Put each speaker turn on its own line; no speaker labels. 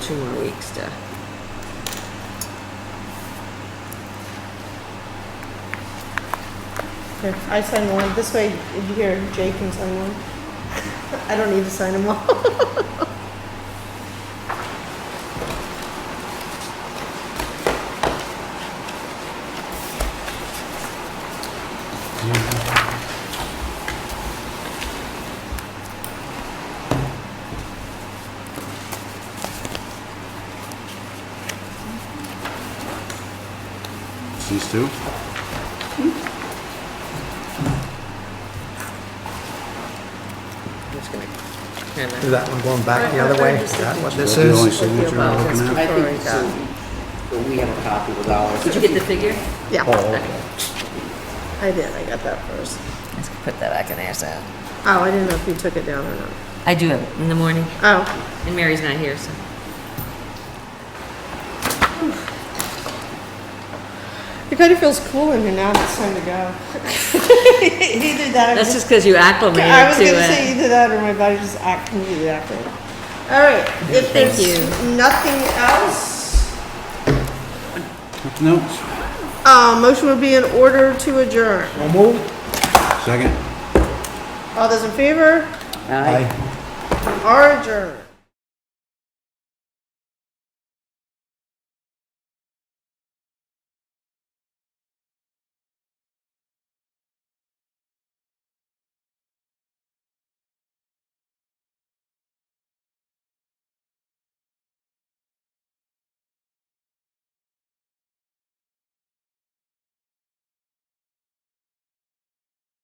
two more weeks to.
Here, I sign one. This way, if you hear, Jay can sign one. I don't need to sign them all.
These two?
I'm just gonna kind
Is
of.
that one going back the other way? Is that what this
That's the only
is?
signature I'm looking at?
I think so. But we have a copy with ours.
Did you get the figure?
Yeah,
Oh, okay.
I did. I got that first.
Let's put that back in there, so.
Oh, I didn't know if you took it down or not.
I do have it in the morning,
Oh,
and Mary's not here, so.
it kind of feels cool in here now. It's time to go. either that. Or
That's just because you
I was
acclimated
going
to
to say
it.
either that or my body just act completely accurate. All right. If
Thank
there's
you.
nothing else,
No,
uh, motion would be in order to adjourn.
We'll move.
second.
All those in favor
Aye.
Aye.
are adjourned.